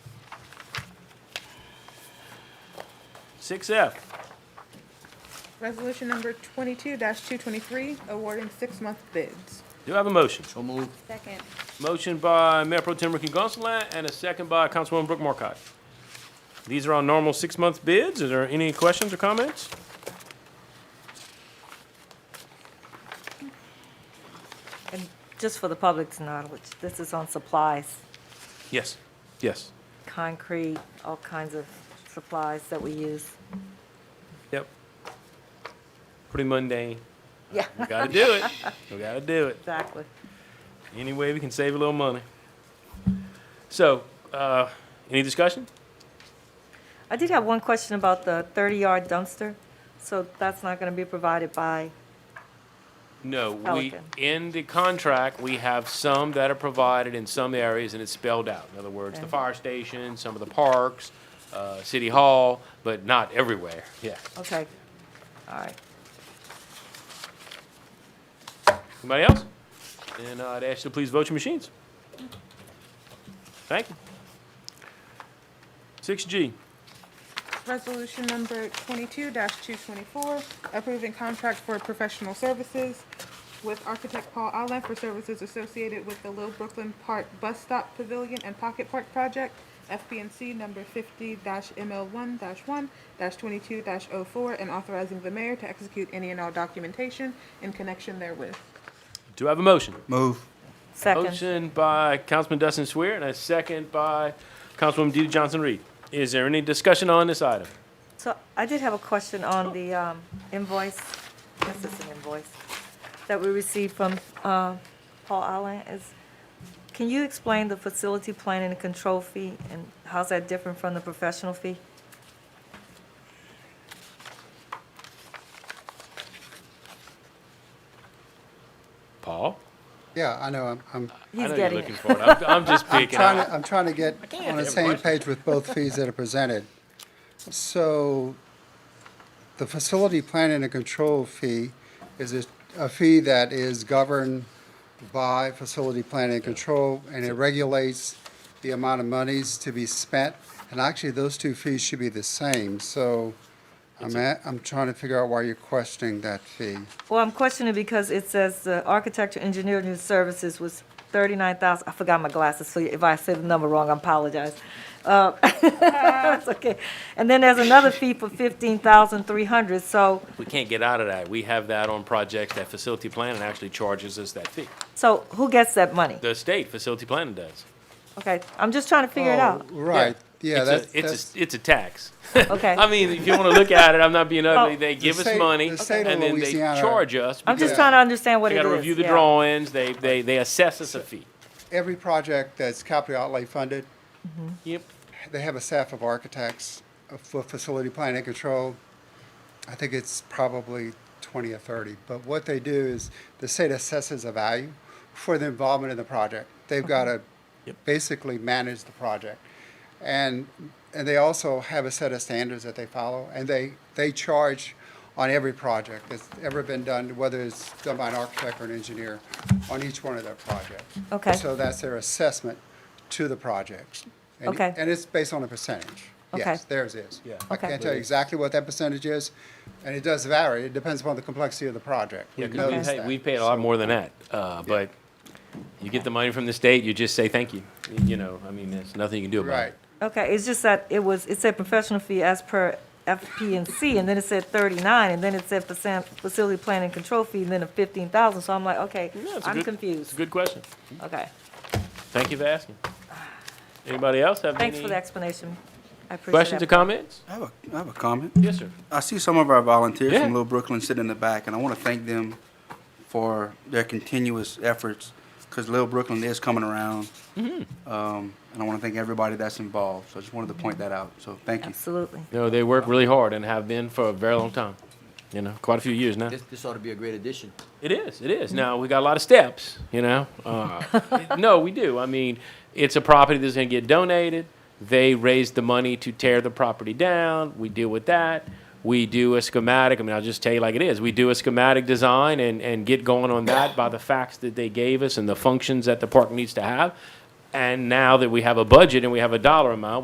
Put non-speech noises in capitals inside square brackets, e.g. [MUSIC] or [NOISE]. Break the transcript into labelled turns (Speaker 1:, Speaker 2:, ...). Speaker 1: Six F,
Speaker 2: Resolution number twenty-two two twenty-three, awarding six-month bids.
Speaker 1: do I have a motion?
Speaker 3: So moved.
Speaker 4: Second.
Speaker 1: Motion by Mayor Pro Tem Ricky Gonsalas and a second by Councilwoman Brooke Marcotte. These are our normal six-month bids. Is there any questions or comments?
Speaker 5: And just for the public's knowledge, this is on supplies,
Speaker 1: Yes. Yes.
Speaker 5: concrete, all kinds of supplies that we use.
Speaker 1: Yep. Pretty mundane.
Speaker 5: Yeah,
Speaker 1: We gotta do it. We gotta do it.
Speaker 5: exactly.
Speaker 1: Any way we can save a little money. So, uh, any discussion?
Speaker 5: I did have one question about the 30-yard dumpster. So that's not going to be provided by,
Speaker 1: No, we,
Speaker 5: Pelican.
Speaker 1: in the contract, we have some that are provided in some areas, and it's spelled out. In other words, the
Speaker 5: Okay.
Speaker 1: fire station, some of the parks, uh, city hall, but not everywhere, yeah.
Speaker 5: okay, all right.
Speaker 1: Anybody else? And I'd ask you to please vote your machines. Thank you. Six G,
Speaker 2: Resolution number twenty-two two twenty-four, approving contract for professional services with architect Paul Allen for services associated with the Little Brooklyn Park Bus Stop Pavilion and Pocket Park Project, FBNC number fifty ML one one twenty-two 4 and authorizing the mayor to execute any and all documentation in connection therewith.
Speaker 1: do I have a motion?
Speaker 3: Move.
Speaker 5: Second,
Speaker 1: Motion by Councilman Dustin Swear and a second by Councilwoman DeeDee Johnson-Reed. Is there any discussion on this item?
Speaker 5: so I did have a question on the um, invoice, this is an invoice, that we received from uh, Paul Allen. Is, can you explain the facility plan and the control fee, and how's that different from the professional fee?
Speaker 1: Paul?
Speaker 6: Yeah, I know, I'm, I'm
Speaker 1: I
Speaker 5: He's
Speaker 1: know you're
Speaker 5: getting
Speaker 1: looking
Speaker 5: it.
Speaker 1: for it. I'm, I'm
Speaker 5: [LAUGHS]
Speaker 1: just picking
Speaker 6: trying
Speaker 1: out.
Speaker 6: to, I'm trying to get
Speaker 1: can't
Speaker 6: on the
Speaker 1: have
Speaker 6: same
Speaker 1: questions.
Speaker 6: page with both fees that are presented. So the facility planning and control fee is a, a fee that is governed by facility planning and control, and it regulates the amount of monies to be spent. And actually, those two fees should be the same, so I'm at, I'm trying to figure out why you're questioning that fee.
Speaker 5: Well, I'm questioning because it says the architecture engineering services was thirty-nine thousand, I forgot my glasses, so if I said the number wrong, I apologize. Uh, [LAUGHS] That's okay. And then there's another fee for fifteen thousand three hundred, so,
Speaker 1: We can't get out of that. We have that on projects that facility planning actually charges us that fee.
Speaker 5: so who gets that money?
Speaker 1: The state facility planning does.
Speaker 5: Okay, I'm just trying to figure it out.
Speaker 6: Oh, Right, yeah,
Speaker 1: It's a-
Speaker 6: that's.
Speaker 1: It's
Speaker 6: that's-
Speaker 1: a, it's a tax.
Speaker 5: Okay.
Speaker 1: [LAUGHS] I mean, if you want to look at it, I'm not being ugly.
Speaker 5: Oh.
Speaker 1: They give us
Speaker 6: state-
Speaker 1: money
Speaker 6: the state of
Speaker 1: and then they
Speaker 6: Louisiana-
Speaker 1: charge us.
Speaker 5: I'm
Speaker 1: because
Speaker 5: just
Speaker 6: Yeah.
Speaker 5: trying to understand what
Speaker 1: They
Speaker 5: it is.
Speaker 1: gotta review the
Speaker 5: yeah.
Speaker 1: drawings. They, they, they assess us a fee.
Speaker 6: Every project that's capital outlay funded
Speaker 1: Yep.
Speaker 6: They have a staff of architects for facility planning and control. I think it's probably 20 or 30. But what they do is the state assesses a value for the involvement in the project. They've got to basically manage the project. And, and they also have a set of standards that they follow, and they, they charge on every project that's ever been done, whether it's done by an architect or an engineer, on each one of their projects.
Speaker 5: Okay.
Speaker 6: So that's their assessment to the projects. And-
Speaker 5: Okay.
Speaker 6: And it's based on a percentage.
Speaker 5: Okay.
Speaker 6: Yes, theirs is.
Speaker 1: Yeah.
Speaker 6: I
Speaker 5: Okay.
Speaker 6: can't tell you exactly what that percentage is, and it does vary. It depends upon the complexity of the project.
Speaker 1: Yeah,
Speaker 6: We've
Speaker 1: 'cause we
Speaker 6: noticed
Speaker 1: pay,
Speaker 6: that.
Speaker 1: we paid a lot more than that, uh, but you get the money from the state, you just say thank you. You know, I mean, there's nothing you can do about
Speaker 6: Right.
Speaker 1: it.
Speaker 5: Okay, it's just that it was, it said professional fee as per FP and C, and then it said thirty-nine, and then it said percent facility plan and control fee, and then a fifteen thousand, so I'm like, okay,
Speaker 1: Yeah, it's a
Speaker 5: I'm
Speaker 1: good- It's a
Speaker 5: confused.
Speaker 1: good question.
Speaker 5: Okay,
Speaker 1: Thank you for asking. Anybody else have
Speaker 5: thanks
Speaker 1: any
Speaker 5: for the explanation. I appreciate that.
Speaker 1: questions or comments?
Speaker 3: I have a, I have a comment.
Speaker 1: Yes, sir.
Speaker 3: I see some of our volunteers
Speaker 1: Yeah.
Speaker 3: from Little Brooklyn sit in the back, and I want to thank them for their continuous efforts because Little Brooklyn is coming around. Um, and I want to thank everybody that's involved. So I just wanted to point that out. So thank you.
Speaker 5: Absolutely.
Speaker 1: No, they work really hard and have been for a very long time, you know, quite a few years now.
Speaker 7: This, this ought to be a great addition.
Speaker 1: It is. It is. Now we got a lot of steps. You know. Uh, it- no, we do. I mean, it's a property that's going to get donated. They raise the money to tear the property down. We deal with that. We do a schematic. I mean, I'll just tell you like it is. We do a schematic design and, and get going on that by the facts that they gave us and the functions that the park needs to have. And now that we have a budget and we have a dollar amount,